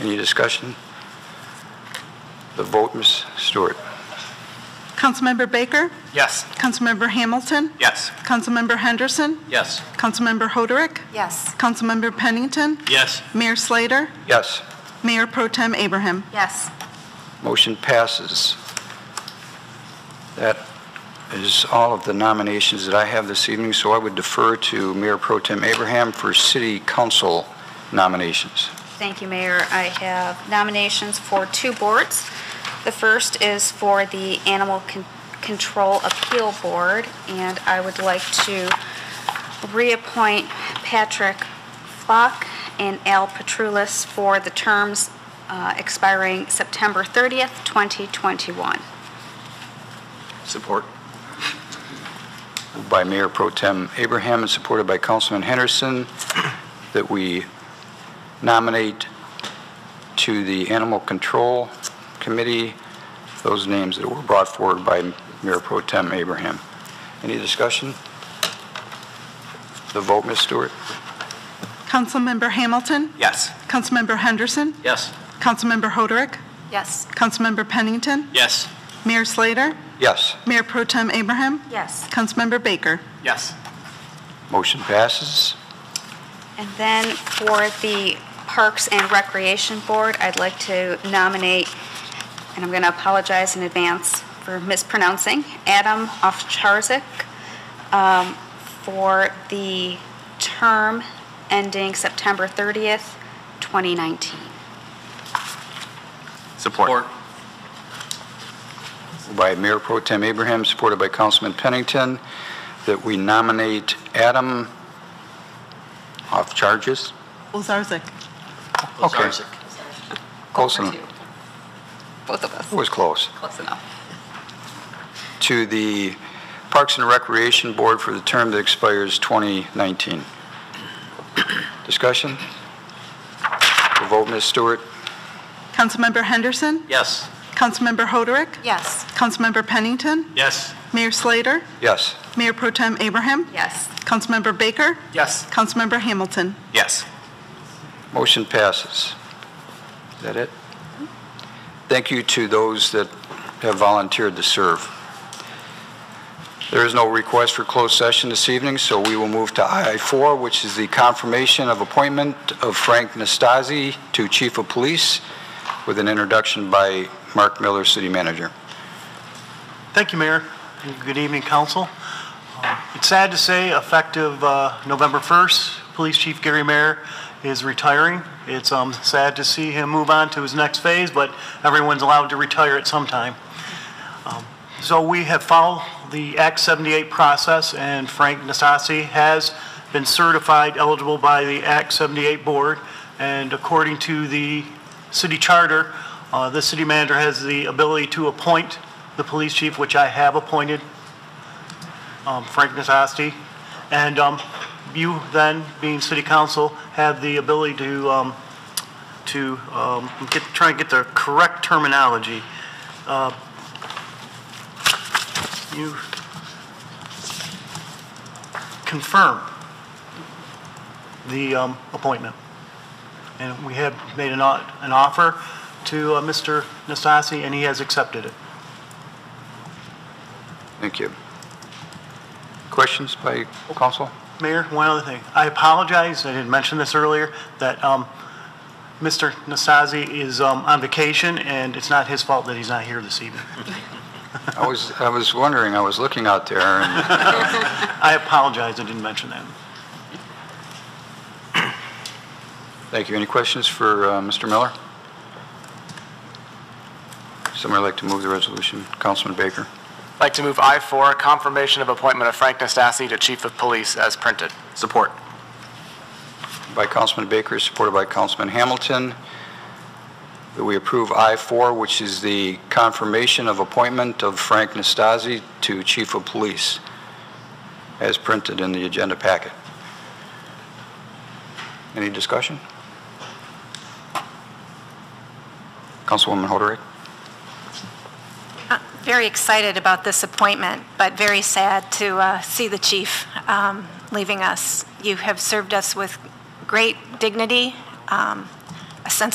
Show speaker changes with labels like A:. A: Any discussion? The vote, Ms. Stewart.
B: Councilmember Baker,
C: Yes.
B: Councilmember Hamilton,
C: Yes.
B: Councilmember Henderson,
C: Yes.
B: Councilmember Hoderick,
D: Yes.
B: Councilmember Pennington,
C: Yes.
B: Mayor Slater,
A: Yes.
B: Mayor Pro Tem Abraham.
D: Yes.
A: Motion passes. That is all of the nominations that I have this evening, so I would defer to Mayor Pro Tem Abraham for city council nominations.
D: Thank you, Mayor. I have nominations for two boards. The first is for the Animal Con- Control Appeal Board, and I would like to reappoint Patrick Flock and Al Petrulis for the terms uh, expiring September 30th, 2021.
C: Support.
A: Moved by Mayor Pro Tem Abraham and supported by Councilman Henderson, that we nominate to the Animal Control Committee those names that were brought forward by Mayor Pro Tem Abraham. Any discussion? The vote, Ms. Stewart?
B: Councilmember Hamilton,
C: Yes.
B: Councilmember Henderson,
C: Yes.
B: Councilmember Hoderick,
D: Yes.
B: Councilmember Pennington,
C: Yes.
B: Mayor Slater,
A: Yes.
B: Mayor Pro Tem Abraham,
D: Yes.
B: Councilmember Baker.
C: Yes.
A: Motion passes.
D: And then for the Parks and Recreation Board, I'd like to nominate, and I'm going to apologize in advance for mispronouncing, Adam Ovcharzik um, for the term ending September 30th, 2019.
C: Support.
A: by Mayor Pro Tem Abraham, supported by Councilman Pennington, that we nominate Adam off charges.
B: Olzarzik.
A: Okay, close
D: Over
A: enough.
D: to you. Both of us,
A: It was close.
D: close enough.
A: To the Parks and Recreation Board for the term that expires 2019. Discussion? The vote, Ms. Stewart?
B: Councilmember Henderson,
C: Yes.
B: Councilmember Hoderick,
D: Yes.
B: Councilmember Pennington,
C: Yes.
B: Mayor Slater,
A: Yes.
B: Mayor Pro Tem Abraham,
D: Yes.
B: Councilmember Baker,
C: Yes.
B: Councilmember Hamilton.
C: Yes.
A: Motion passes. Is that it? Thank you to those that have volunteered to serve. There is no request for closed session this evening, so we will move to I-4, which is the confirmation of appointment of Frank Nastasi to Chief of Police with an introduction by Mark Miller, City Manager.
E: Thank you, Mayor, and good evening, council. Uh, It's sad to say, effective uh, November 1st, Police Chief Gary Mayer is retiring. It's um, sad to see him move on to his next phase, but everyone's allowed to retire at some time. Um, So we have followed the Act 78 process, and Frank Nastasi has been certified eligible by the Act 78 Board, and according to the city charter, uh, the city manager has the ability to appoint the police chief, which I have appointed, um, Frank Nastasi. And um, you then, being city council, have the ability to, um, to um, get, try and get the correct terminology. Uh, You confirm the um, appointment. And we have made an o- an offer to uh, Mr. Nastasi, and he has accepted it.
A: Thank you. Questions by council?
E: Mayor, one other thing. I apologize, I didn't mention this earlier, that um, Mr. Nastasi is um, on vacation, and it's not his fault that he's not here this evening.
A: I was, I was wondering, I was looking out there, and
E: I apologize, I didn't mention that.
A: thank you. Any questions for uh, Mr. Miller? Somebody like to move the resolution? Councilman Baker?
F: I'd like to move I-4, confirmation of appointment of Frank Nastasi to Chief of Police as printed.
C: Support.
A: by Councilman Baker, supported by Councilman Hamilton, that we approve I-4, which is the confirmation of appointment of Frank Nastasi to Chief of Police, as printed in the agenda packet. Any discussion? Councilwoman Hoderick?
G: very excited about this appointment, but very sad to uh, see the chief um, leaving us. You have served us with great dignity, um, a sense of